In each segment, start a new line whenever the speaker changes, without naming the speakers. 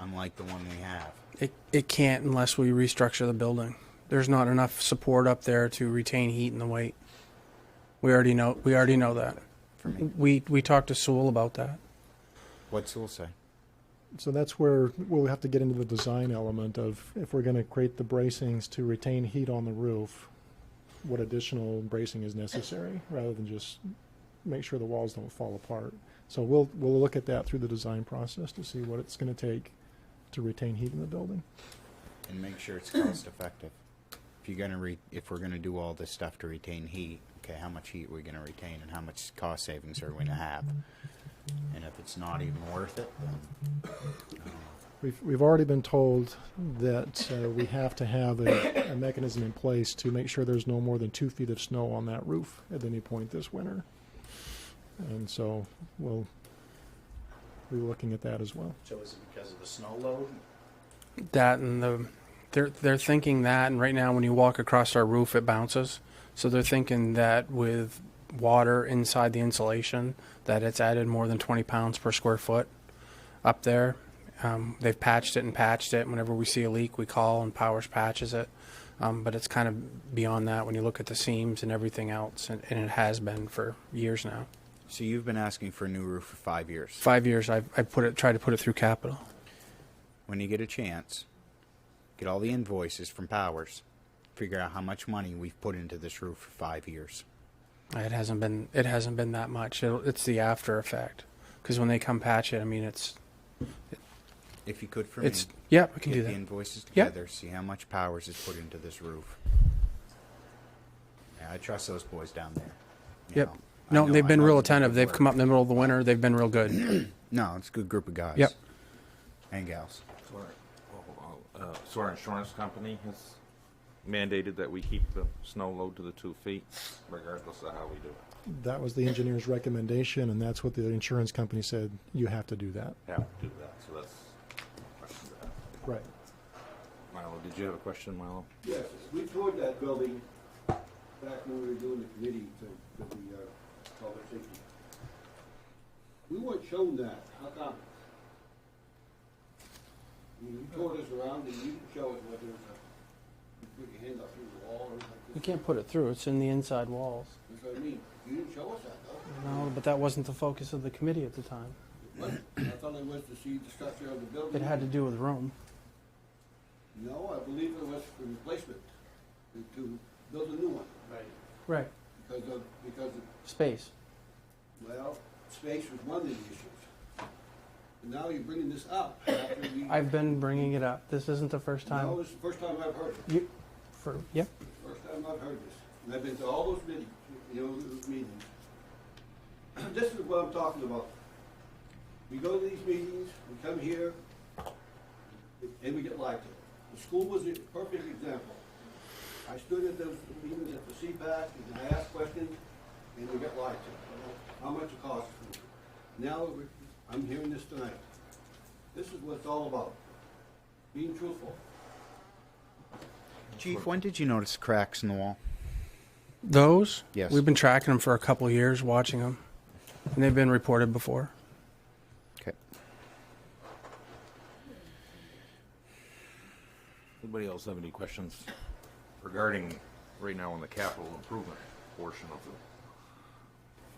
unlike the one we have.
It, it can't unless we restructure the building. There's not enough support up there to retain heat and the weight. We already know, we already know that.
For me,
We, we talked to Sewell about that.
what's Sewell say?
So that's where we'll have to get into the design element of if we're going to create the bracings to retain heat on the roof, what additional bracing is necessary rather than just make sure the walls don't fall apart. So we'll we'll look at that through the design process to see what it's going to take to retain heat in the building.
and make sure it's cost effective. If you're gonna re, if we're gonna do all this stuff to retain heat, okay, how much heat are we gonna retain and how much cost savings are we gonna have? And if it's not even worth it, then
We've, we've already been told that uh, we have to have a, a mechanism in place to make sure there's no more than two feet of snow on that roof at any point this winter. And so we'll be looking at that as well.
so is it because of the snow load?
That and the, they're, they're thinking that, and right now when you walk across our roof, it bounces. So they're thinking that with water inside the insulation, that it's added more than 20 pounds per square foot up there. Um, they've patched it and patched it. Whenever we see a leak, we call and Powers patches it. Um, but it's kind of beyond that when you look at the seams and everything else, and, and it has been for years now.
So you've been asking for a new roof for five years.
Five years I've, I put it, tried to put it through capital.
when you get a chance, get all the invoices from Powers, figure out how much money we've put into this roof for five years.
It hasn't been it hasn't been that much. It'll, it's the after effect because when they come patch it, I mean it's
If you could for
it's
me,
yeah we can
get
do
the
that.
invoices
Yeah.
together, see how much Powers has put into this roof. Yeah, I trust those boys down there. you
Yep.
know. I
No,
know-
they've
I
been
know
real
they do
attentive.
good
They've
work.
come up in the middle of the winter. They've been real good.
No, it's a good group of guys.
Yep.
And gals.
So our- oh, oh, uh, So our insurance company has mandated that we keep the snow load to the two feet regardless of how we do it.
That was the engineer's recommendation, and that's what the insurance company said you have to do that.
Have to do that, so that's a question to ask.
Right.
Milo, did you have a question, Milo?
Yes, we toured that building back when we were doing the committee thing, for the, uh, public safety. We weren't shown that, how come? I mean, You toured us around and you didn't show it whether it's a, you put your hand up through the wall or
You
something.
can't put it through. It's in the inside walls.
That's what I mean, you didn't show us that though.
No, but that wasn't the focus of the committee at the time.
What? I thought it was to see the structure of the building.
It had to do with room.
No, I believe it was for replacement, to, to build a new one. Right.
Right.
Because of, because of
Space.
Well, space was one of the issues. And now you're bringing this up after we.
I've been bringing it up. This isn't the first time.
No, this is the first time I've heard it.
You, for yep.
First time I've heard this. And I've been to all those meetings, you know, those meetings. This is what I'm talking about. We go to these meetings, we come here, and we get lied to. The school was a perfect example. I stood at those meetings at the CPAC, and I asked questions, and we got lied to. How much it costs. Now, I'm hearing this tonight. This is what it's all about, being truthful.
Chief, when did you notice cracks in the wall?
Those?
Yes.
We've been tracking them for a couple of years, watching them, and they've been reported before.
Okay.
Anybody else have any questions regarding, right now on the capital improvement portion of the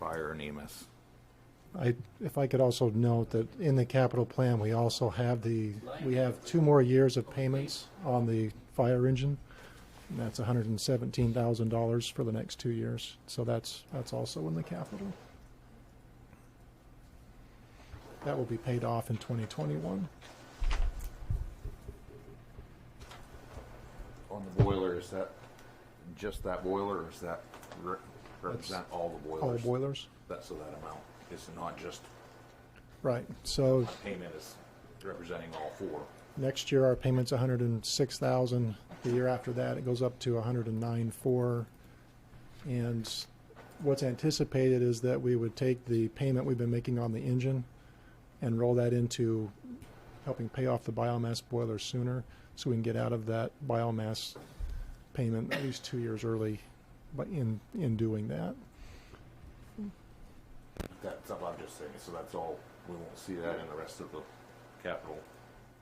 fire and E EMS?
I, if I could also note that in the capital plan, we also have the, we have two more years of payments on the fire engine. And that's hundred and seventeen thousand dollars for the next two years. So that's, that's also in the capital. That will be paid off in twenty twenty-one.
On the boiler, is that just that boiler or is that re- represent all the
All
boilers?
boilers,
That's so that amount. It's not just
right. So
payment is representing all four.
Next year, our payment's a hundred and six thousand. The year after that, it goes up to a hundred and nine four. And what's anticipated is that we would take the payment we've been making on the engine and roll that into helping pay off the biomass boiler sooner, so we can get out of that biomass payment at least two years early, but in, in doing that.
That's, I'm just saying, so that's all, we won't see that in the rest of the capital